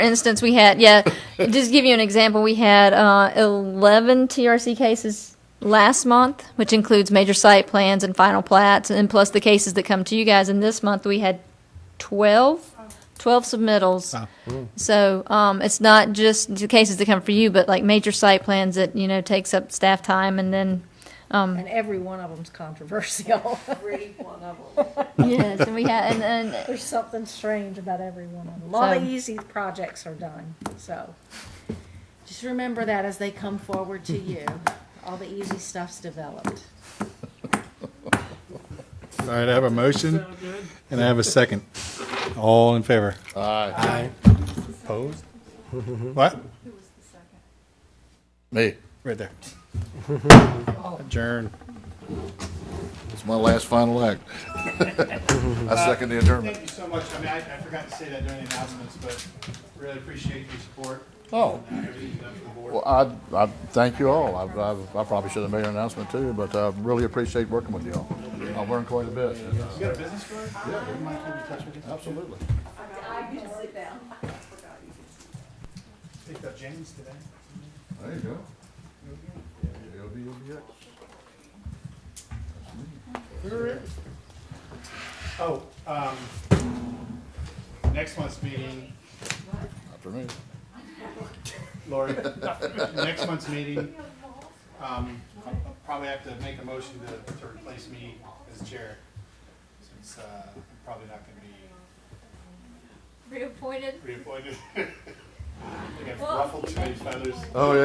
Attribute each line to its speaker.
Speaker 1: instance, we had yeah. just to give you an example, we had uh, eleven TRC cases last month, which includes major site plans and final plats, and plus the cases that come to you guys. And this month we had 12, 12 submittals. So um, it's not just the cases that come for you, but like major site plans that you know takes up staff time, and then
Speaker 2: And every one of them's controversial.
Speaker 1: yes, and we had and, and
Speaker 2: There's something strange about every one of them. A lot of
Speaker 1: So-
Speaker 2: easy projects are done, so.
Speaker 3: Just remember that as they come forward to you, all the easy stuff's developed.
Speaker 4: All right, I have a motion and I have a second. All in favor? Aye. Aye. Opposed? What?
Speaker 5: Me,
Speaker 4: Right there. Adjourn.
Speaker 5: it's my last final act. I second the adjournment.
Speaker 6: Thank you so much. I mean, I, I forgot to say that during the announcements, but really appreciate your support.
Speaker 5: Oh.
Speaker 6: and everything you've done for the board.
Speaker 5: Well, I, I thank you all. I, I, I probably should have made an announcement too, but I really appreciate working with you all. I've learned quite a bit.
Speaker 6: You got a business card? Yeah. You mind keeping in touch with us?
Speaker 5: Absolutely.
Speaker 6: Picked up James today.
Speaker 5: There you go. LBOBX.
Speaker 6: Oh, um, next month's meeting,
Speaker 5: After me.
Speaker 6: Lori, next month's meeting, um, I'll I'll probably have to make a motion to, to replace me as chair. Since, uh, I'm probably not gonna be
Speaker 1: reappointed.
Speaker 6: reappointed. I think I've ruffled too many feathers.
Speaker 5: Oh, yeah.